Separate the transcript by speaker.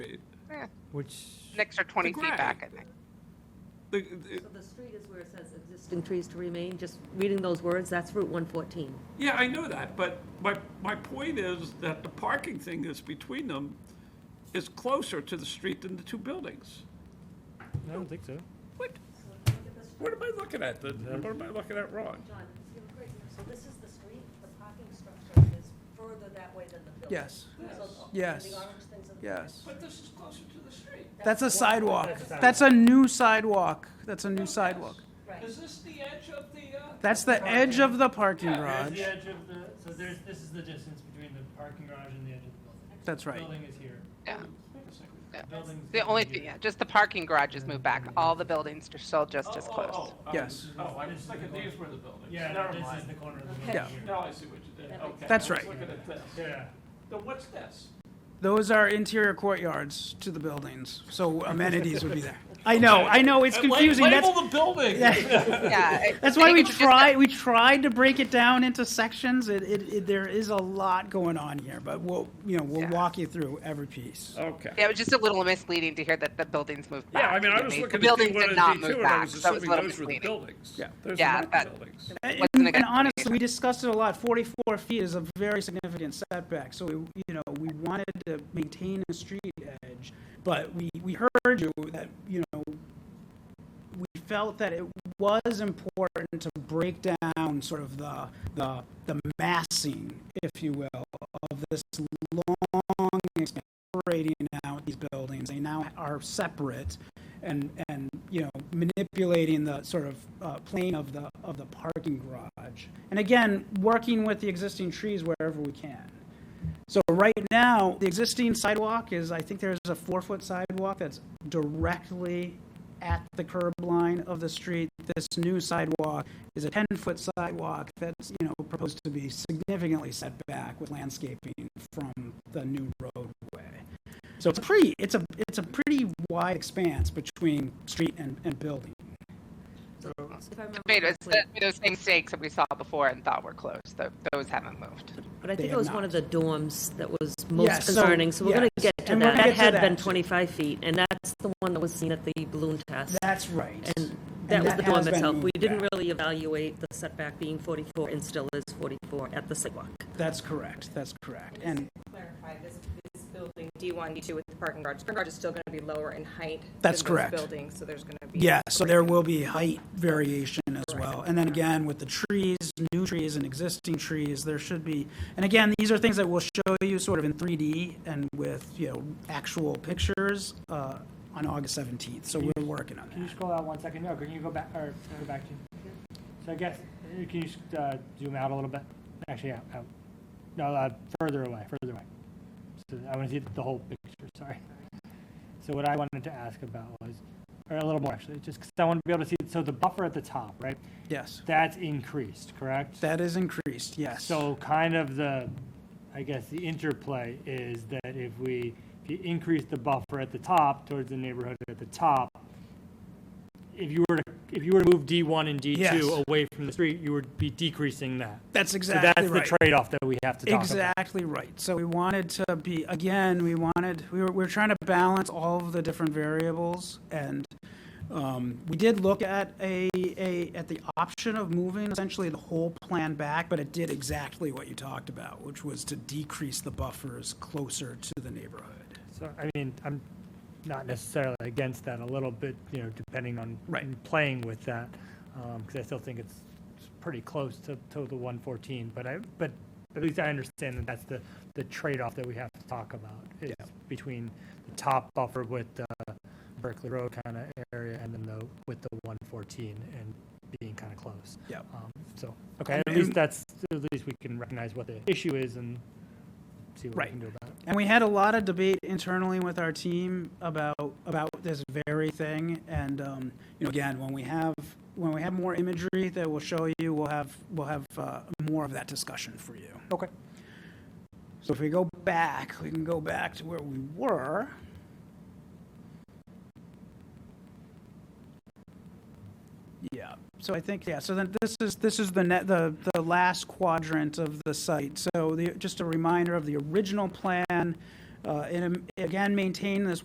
Speaker 1: Yeah,
Speaker 2: Which,
Speaker 1: Nicks are 20
Speaker 2: Right.
Speaker 1: feet back, I think.
Speaker 2: the- the-
Speaker 3: So the street is where it says existing trees to remain, just reading those words, that's Route 114.
Speaker 2: yeah, I know that, but my, my point is that the parking thing that's between them is closer to the street than the two buildings.
Speaker 4: I don't think so.
Speaker 2: What? What am I looking at? The- What am I looking at wrong?
Speaker 3: John, you were correct. so this is the street, the parking structure is further that way than the building.
Speaker 5: Yes,
Speaker 3: So, okay,
Speaker 5: Yes.
Speaker 3: The orange things are the-
Speaker 5: yes.
Speaker 2: But this is closer to the street.
Speaker 5: That's a sidewalk. That's a new sidewalk. That's a new sidewalk.
Speaker 3: Right.
Speaker 2: Is this the edge of the, uh?
Speaker 5: That's the edge of the parking
Speaker 4: There's
Speaker 5: garage.
Speaker 4: the edge of the, so there's, this is the distance between the parking garage and the edge of the building.
Speaker 5: That's right.
Speaker 4: Building is here.
Speaker 1: Yeah. Yeah.
Speaker 4: Building's
Speaker 1: The only
Speaker 4: here.
Speaker 1: thing, yeah, just the parking garages moved back. All the buildings are still just as close.
Speaker 5: Yes.
Speaker 2: Oh, I was thinking these were the buildings.
Speaker 4: Yeah,
Speaker 2: Never
Speaker 4: this is
Speaker 2: mind.
Speaker 4: the corner of the
Speaker 3: Okay.
Speaker 4: building
Speaker 5: Yeah.
Speaker 4: here.
Speaker 2: Now I see what you did. Okay.
Speaker 5: That's
Speaker 2: I was
Speaker 5: right.
Speaker 2: Looking at this.
Speaker 4: Yeah.
Speaker 2: Then what's this?
Speaker 5: Those are interior courtyards to the buildings, so amenities would be there. I know, I know, it's
Speaker 2: Uh, la-
Speaker 5: confusing. That's,
Speaker 2: Label the building.
Speaker 1: Yeah.
Speaker 5: that's why we try, we tried to break it down into sections. It, it, it- there is a lot going on here, but we'll, you know, we'll
Speaker 1: Yeah.
Speaker 5: walk you through every piece.
Speaker 2: Okay.
Speaker 1: Yeah, it was just a little misleading to hear that the buildings moved back.
Speaker 2: Yeah, I mean, I
Speaker 1: you
Speaker 2: was
Speaker 1: know,
Speaker 2: looking at
Speaker 1: The buildings
Speaker 2: D1
Speaker 1: did
Speaker 2: and
Speaker 1: not move
Speaker 2: D2, and I
Speaker 1: back,
Speaker 2: was
Speaker 1: so it was a
Speaker 2: assuming
Speaker 1: little
Speaker 2: those were the
Speaker 1: misleading.
Speaker 2: buildings.
Speaker 5: Yeah.
Speaker 2: Those
Speaker 1: Yeah,
Speaker 2: are not
Speaker 1: that-
Speaker 2: the buildings.
Speaker 5: And,
Speaker 1: Wasn't a good
Speaker 5: and honestly,
Speaker 1: explanation.
Speaker 5: we discussed it a lot. Forty-four feet is a very significant setback, so we, you know, we wanted to maintain a street edge, but we, we heard you that, you know, we felt that it was important to break down sort of the, the, the massing, if you will, of this long expansion separating out these buildings. They now are separate and, and, you know, manipulating the sort of uh, plane of the, of the parking garage. And again, working with the existing trees wherever we can. So right now, the existing sidewalk is, I think there's a four-foot sidewalk that's directly at the curb line of the street. This new sidewalk is a 10-foot sidewalk that's, you know, proposed to be significantly set back with landscaping from the new roadway. So it's a pretty, it's a, it's a pretty wide expanse between street and, and building.
Speaker 3: If I remember
Speaker 1: Made us-
Speaker 3: correctly-
Speaker 1: Those same stakes that we saw before and thought were closed, tho- those haven't moved.
Speaker 3: But I
Speaker 5: They
Speaker 3: think it
Speaker 5: have
Speaker 3: was
Speaker 5: not.
Speaker 3: one of the dorms that was
Speaker 5: Yeah,
Speaker 3: most
Speaker 5: so-
Speaker 3: concerning, so we're going to
Speaker 5: yes,
Speaker 3: get to
Speaker 5: and we'll
Speaker 3: that. That
Speaker 5: get to
Speaker 3: had
Speaker 5: that,
Speaker 3: been
Speaker 5: too.
Speaker 3: 25 feet, and that's the one that was seen at the balloon test.
Speaker 5: That's right.
Speaker 3: And that was the
Speaker 5: has
Speaker 3: dorm
Speaker 5: been
Speaker 3: itself. We
Speaker 5: moved
Speaker 3: didn't
Speaker 5: back.
Speaker 3: really evaluate the setback being 44 and still is 44 at the sidewalk.
Speaker 5: That's correct, that's correct. And
Speaker 6: clarify, this, this building, D1, D2 with the parking garage, parking garage is still going to be lower in height.
Speaker 5: That's
Speaker 6: than those
Speaker 5: correct.
Speaker 6: Buildings, so there's going to be.
Speaker 5: Yeah, so there will be height variation as well. And then again, with the trees, new trees and existing trees, there should be, and again, these are things that we'll show you sort of in 3D and with, you know, actual pictures uh, on August 17th. So we're working on
Speaker 4: Can you
Speaker 5: that.
Speaker 4: scroll out one second? No, can you go back, or go back to? So I guess, uh, can you s- uh, zoom out a little bit? Actually, out, out. No, uh, further away, further away. So I want to see the whole picture, sorry. So what I wanted to ask about was, or a little more actually, just because I want to be able to see, so the buffer at the top, right?
Speaker 5: Yes,
Speaker 4: That's increased, correct?
Speaker 5: that is increased, yes.
Speaker 4: So kind of the, I guess, the interplay is that if we, if you increase the buffer at the top towards the neighborhood at the top, if you were to, if you were to move D1 and
Speaker 5: Yes.
Speaker 4: D2 away from the street, you would be decreasing that.
Speaker 5: That's
Speaker 4: So
Speaker 5: exactly
Speaker 4: that's the
Speaker 5: right.
Speaker 4: trade-off that we have to talk about.
Speaker 5: Exactly right. So we wanted to be, again, we wanted, we were, we were trying to balance all of the different variables. And um, we did look at a, a, at the option of moving essentially the whole plan back, but it did exactly what you talked about, which was to decrease the buffers closer to the neighborhood.
Speaker 4: So, I mean, I'm not necessarily against that a little bit, you know, depending on
Speaker 5: Right.
Speaker 4: and playing with that, because I still think it's it's pretty close to, to the 114, but I, but at least I understand that that's the, the trade-off that we have to talk about, is between the top buffer with the Berkeley Road kind of area and then the, with the 114 and being kind of close.
Speaker 5: Yeah.
Speaker 4: Um, So, okay, at least that's, at least we can recognize what the issue is and see what we
Speaker 5: Right.
Speaker 4: can do about it.
Speaker 5: And we had a lot of debate internally with our team about, about this very thing. And, um, you know, again, when we have, when we have more imagery that we'll show you, we'll have, we'll have, uh, more of that discussion for you.
Speaker 4: Okay.
Speaker 5: So if we go back, we can go back to where we were. Yeah, so I think, yeah, so then this is, this is the net, the, the last quadrant of the site. So the, just a reminder of the original plan, uh, and um, again, maintain this